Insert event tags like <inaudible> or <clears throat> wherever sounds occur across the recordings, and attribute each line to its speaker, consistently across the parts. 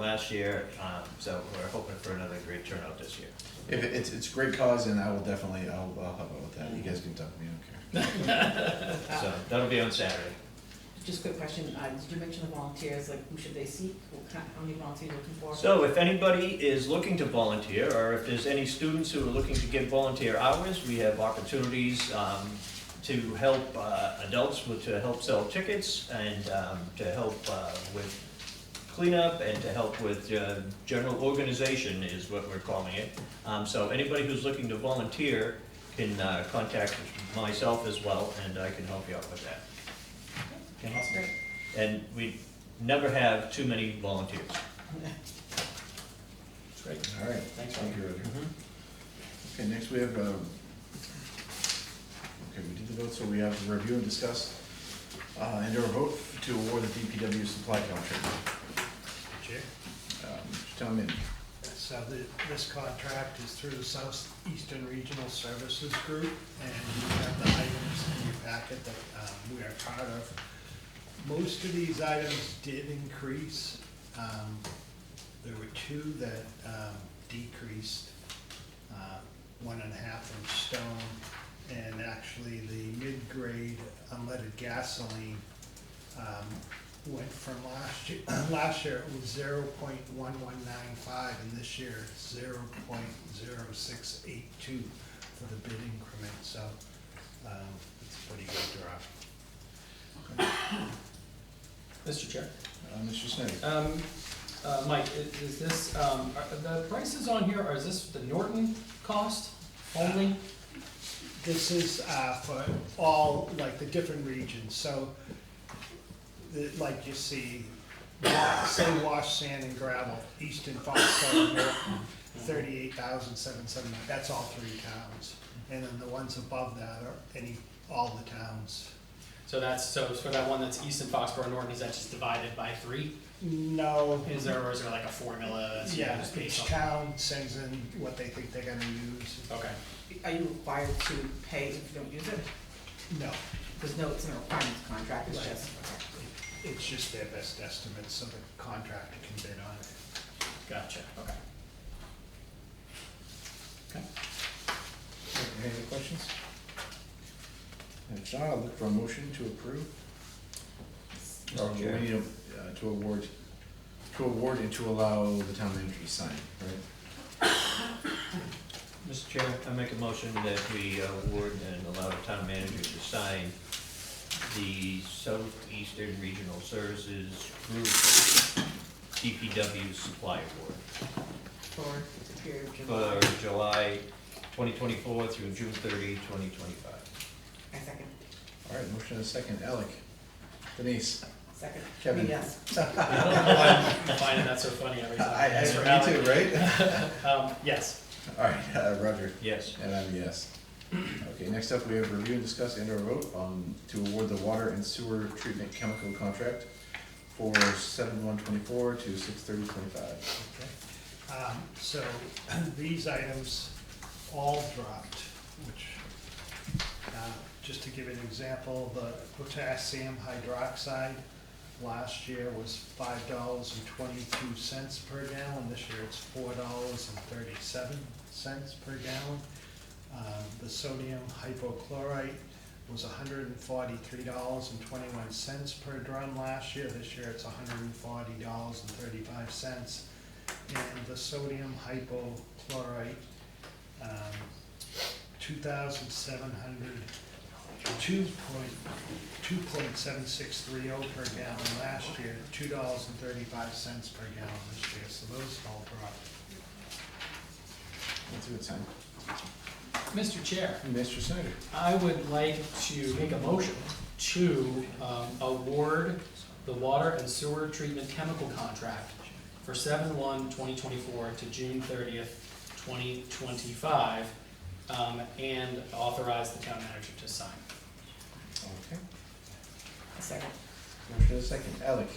Speaker 1: last year, um, so we're hoping for another great turnout this year.
Speaker 2: If it- it's, it's a great cause and I will definitely, I'll, I'll help out with that. You guys can talk to me, I don't care.
Speaker 1: So that'll be on Saturday.
Speaker 3: Just a quick question, uh, did you mention the volunteers, like who should they seek, what kind, how many volunteers are you looking for?
Speaker 1: So if anybody is looking to volunteer, or if there's any students who are looking to give volunteer hours, we have opportunities um, to help uh, adults, with to help sell tickets, and um, to help uh, with cleanup, and to help with uh, general organization is what we're calling it. Um, So anybody who's looking to volunteer can uh, contact myself as well, and I can help you out with that. Okay?
Speaker 3: That's great.
Speaker 1: And we never have too many volunteers.
Speaker 2: That's great. All right.
Speaker 4: Thanks,
Speaker 2: Thank you, Roger. Okay, next we have, um, okay, we did the vote, so we have to review and discuss, uh, and or vote to award the DPW supply contract.
Speaker 5: Chair.
Speaker 2: Um, Town manager.
Speaker 5: So the, this contract is through the Southeastern Regional Services Group, and you have the items in your packet that um, we are part of. Most of these items did increase. Um, There were two that um, decreased, uh, one and a half inch stone, and actually the mid-grade unleaded gasoline um, went from last year, <clears throat> last year it was zero point one one nine five, and this year it's zero point zero six eight two for the bid increment, so, um, it's a pretty good drop.
Speaker 4: Mr. Chair.
Speaker 2: Uh, Mr. Snyder.
Speaker 4: Um, uh, Mike, i- is this, um, are the prices on here, or is this the Norton cost only?
Speaker 5: This is, uh, for all, like, the different regions, so, the- like you see, wa- say wash, sand and gravel, Easton, Foxborough, Norton, thirty-eight thousand seven seventy, that's all three towns. And then the ones above that are any, all the towns.
Speaker 4: So that's, so for that one that's Easton, Foxborough, Norton, is that just divided by three?
Speaker 5: No,
Speaker 4: Is there, or is there like a formula? that's
Speaker 5: yeah,
Speaker 4: just based
Speaker 5: each
Speaker 4: on-
Speaker 5: town sends in what they think they're gonna use.
Speaker 4: Okay,
Speaker 3: <laughs> Are you required to pay if you don't use it?
Speaker 5: No,
Speaker 3: There's no, it's not a requirements contract, it's
Speaker 5: Right.
Speaker 3: just,
Speaker 5: it's just their best estimates, so the contractor can bid on it.
Speaker 4: gotcha,
Speaker 2: <laughs>
Speaker 4: okay. Okay.
Speaker 2: Any other questions? If not, I'll look for a motion to approve. Or we
Speaker 1: Chair.
Speaker 2: need a, uh, to award, to award and to allow the town manager to sign, right?
Speaker 1: Mr. Chair, I make a motion that we uh, award and allow the town manager to sign the Southeastern Regional Services Group DPW Supply Award
Speaker 3: for the period of July.
Speaker 1: for July 2024 through June 30, 2025.
Speaker 3: I second,
Speaker 2: All right, motion and a second. Alec, Denise,
Speaker 3: second.
Speaker 2: Kevin.
Speaker 3: Yes.
Speaker 4: I'm finding that so funny every time.
Speaker 2: I, I,
Speaker 4: Thanks for
Speaker 2: me
Speaker 4: having-
Speaker 2: too, right? <laughs>
Speaker 4: Um, yes,
Speaker 2: All right, uh, Roger.
Speaker 1: Yes.
Speaker 2: And I'm a yes. Okay, next up, we have review and discuss and/or vote on to award the water and sewer treatment chemical contract for seven one twenty-four to six thirty twenty-five.
Speaker 5: Okay. Um, so <clears throat> these items all dropped, which, uh, just to give an example, the potassium hydroxide last year was five dollars and twenty-two cents per gallon, this year it's four dollars and thirty-seven cents per gallon. Um, the sodium hypochlorite was hundred and forty-three dollars and twenty-one cents per drum last year, this year it's hundred and forty dollars and thirty-five cents and the sodium hypochlorite, um, two thousand seven hundred, two point, two point seven six three oh per gallon last year, two dollars and thirty-five cents per gallon this year, so those all dropped.
Speaker 2: That's a good sign.
Speaker 4: Mr. Chair.
Speaker 2: Mr. Snyder,
Speaker 4: I would like to make a motion to um, award the water and sewer treatment chemical contract for seven one 2024 to June thirtieth, twenty twenty-five, um, and authorize the town manager to sign.
Speaker 2: okay.
Speaker 3: A second,
Speaker 2: Motion and a second. Alec,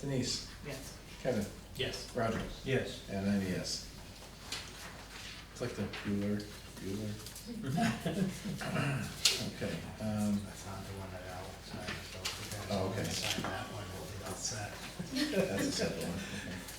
Speaker 2: Denise,
Speaker 3: yes.
Speaker 2: Kevin,
Speaker 4: Yes.
Speaker 2: Roger,
Speaker 1: Yes.
Speaker 2: and I'm a yes. E It's like the Bueller, Bueller. Okay, um,
Speaker 5: I found the one that Al signed, so if you guys
Speaker 2: Oh,
Speaker 5: want to
Speaker 2: okay.
Speaker 5: sign that one, we'll be all set.
Speaker 2: that's a separate one, okay.